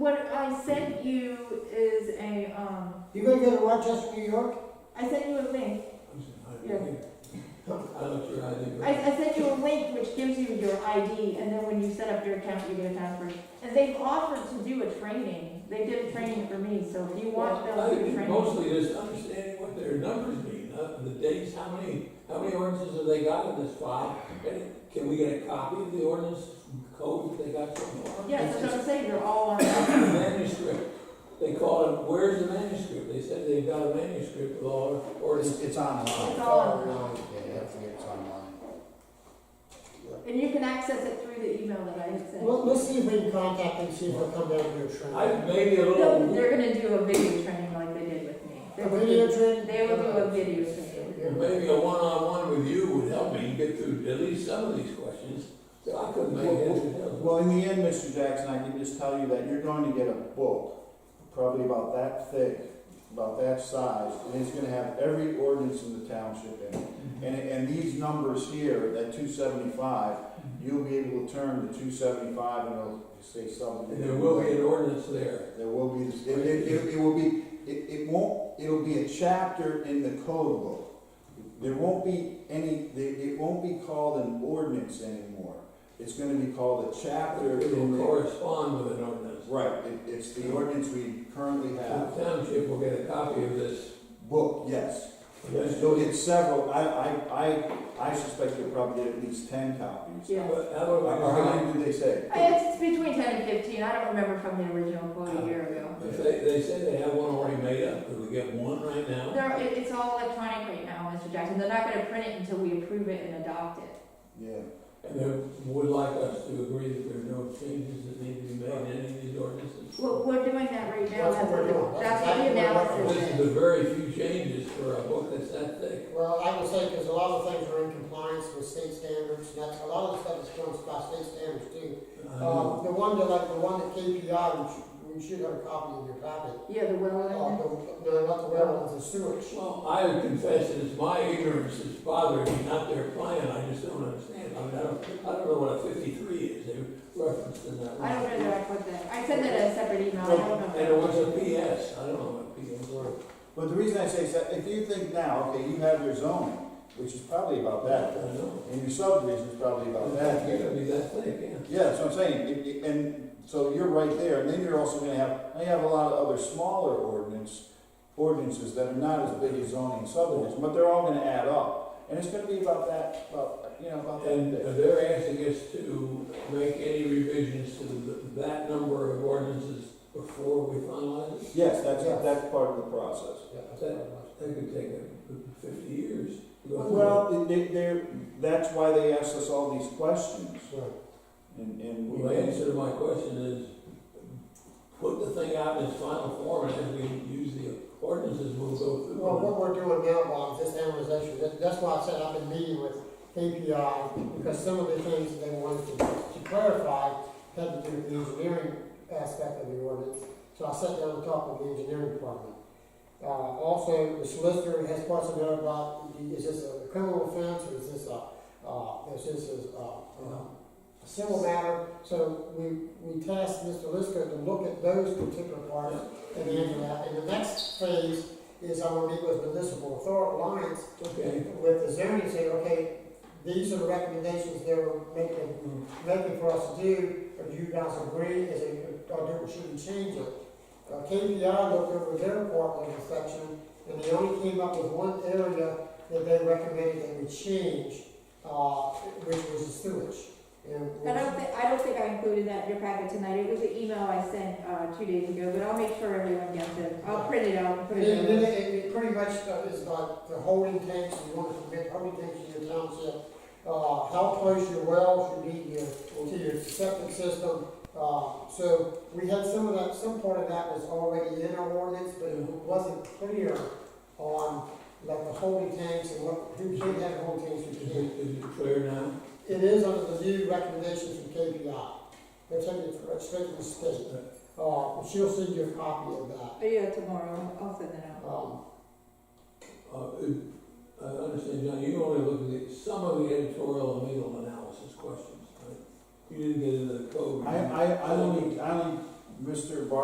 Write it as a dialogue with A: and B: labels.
A: Rochester, New York?
B: um, I sent you a link. Yeah.
C: I looked your ID,
B: I,
C: but
B: I sent you a link which gives you your ID, and then when you set up your account, you get a password. And they've offered to do a training. They did a training for me, so if you want,
C: I
B: they'll do a
C: think
B: training.
C: mostly just understanding what their numbers mean, uh, the dates, how many, how many ordinances have they got in this file? And can we get a copy of the ordinance code that they got so far?
B: Yes, that's what I'm saying, they're all on.
C: The Manuscript, they called it, where's the manuscript? They said they've got a manuscript of all our ordinances.
D: It's, it's online.
B: It's all
D: Yeah, yeah, it's online.
B: And you can access it through the email that I had sent.
A: Well, let's see if we can contact them, see if they'll come down here
C: I,
A: training.
C: maybe a
B: No,
C: little,
B: they're gonna do a video training like they did with me. They
A: A
B: will
A: video
B: do-
A: training?
B: They will do a video training.
C: maybe a one-on-one with you would help me get through at least some of these questions. So I couldn't make heads or tails.
D: Well, in the end, Mr. Jackson, I can just tell you that you're going to get a book, probably about that thick, about that size, and it's gonna have every ordinance in the township in it. And, and these numbers here, that two seventy-five, you'll be able to turn to two seventy-five and it'll say something.
C: And there will be an ordinance there.
D: There will be, it, it, it- it will be, it, it won't, it'll be a chapter in the code book. There won't be any, there- it won't be called an ordinance anymore. It's gonna be called a chapter
C: It
D: in
C: will
D: the.
C: correspond with an ordinance.
D: Right, it, it's the ordinance we currently have.
C: The township will get a copy of this.
D: Book, yes. You'll get several, I, I, I, I suspect you'll probably get at least ten copies.
B: Yeah.
C: But how do
D: Or
C: I,
D: how many did they say?
B: I- It's between ten and fifteen. I don't remember from the original quote a year ago.
C: if they, they said they have one already made up, could we get one right now?
B: They're, it, it's all electronic right now, Mr. Jackson. They're not gonna print it until we approve it and adopt it.
D: Yeah.
C: And they would like us to agree that there are no changes that need to be made in any of these ordinances.
B: Well, we're doing that right now.
A: That's what we're doing.
B: That's what the analysis
C: This
B: is.
C: is a very few changes for a book that's that thick.
A: Well, I would say, because a lot of things are in compliance with state standards, and that's, a lot of the stuff is going by state standards too.
C: I
A: Um,
C: know.
A: the one that, like, the one that KPI, which, we should have a copy in your packet.
B: Yeah, the well
A: Uh,
B: one.
A: the- no, not the railroads, the sewage.
C: Well, I would confess that it's my ignorance that's bothering me, not their plan, I just don't understand. I mean, I don't, I don't know what a fifty-three is, they referenced in that.
B: I don't know that I put that. I sent that as a separate email. I
C: And it
B: don't
C: was
B: know.
C: a PS, I don't know what PS were.
D: But the reason I say is that if you think now, okay, you have your zoning, which is probably about
C: I
D: that,
C: don't know.
D: and your subdivision is probably about that.
C: It's gonna be that thick, yeah.
D: Yeah, that's what I'm saying, It- it- and so you're right there, and then you're also gonna have, now you have a lot of other smaller ordinance, ordinances that are not as big as zoning subdivision, but they're all gonna add up, and it's gonna be about that, about, you know, about that.
C: And
D: big.
C: they're asking us to make any revisions to th- that number of ordinances before we finalize it?
D: Yes, that's,
A: Yes.
D: that's part of the process.
C: That could take uh, fifty years. to go through.
D: Well, they, they're, that's why they asked us all these questions,
A: Sure.
D: and, and. we-
C: Well, The answer to my question is, put the thing out in its final form, and as we use the ordinances, we'll go through.
A: Well,
C: them.
A: what we're doing now, Bob, is this amortization, That- that's why I said I've been meeting with KPI, because some of the things they wanted to to clarify had to do with the engineering aspect of the ordinance, so I sat down and talked with the engineering department. Uh, also, the solicitor has parts of it about, the- is this a criminal offense, or is this a, uh, is this a, uh, uh, civil matter? So we, we tasked Mr. Lister to look at those particular parts and answer that, and the next phase is I will meet with municipal authority alliance
C: Okay.
A: with the zoning, say, okay, these are the recommendations they're making,
C: Mm.
A: making for us to do, or do you guys agree, is it, or do, we shouldn't change it? Uh, KPI looked over their part of the section, and they only came up with one area that they recommended they would change, uh, which was the sewage. And-
B: I don't think, I don't think I included that in your packet tonight. It was an email I sent, uh, two days ago, but I'll make sure everyone gets it. I'll print it out and put
A: And
B: it in.
A: then it, it pretty much is like the holding tanks, you want to permit holding tanks in your township. Uh, how close your wells should be to your, to your septic system. Uh, so we had some of that, some part of that was already in our ordinance, but it wasn't clear on like the holding tanks and what, who can have holding tanks, who
C: Is
A: can't.
C: it, is it clear now?
A: It is under the new recommendations from KPI. They're taking it from, straight from the state. Uh, she'll send you a copy of that.
B: Oh, yeah, tomorrow. I'll send that out.
A: Um,
C: Uh, I understand, John, you only looked at the- some of the editorial and legal analysis questions, right? You didn't get into the code.
D: I, I, I only, I only, Mr. Bar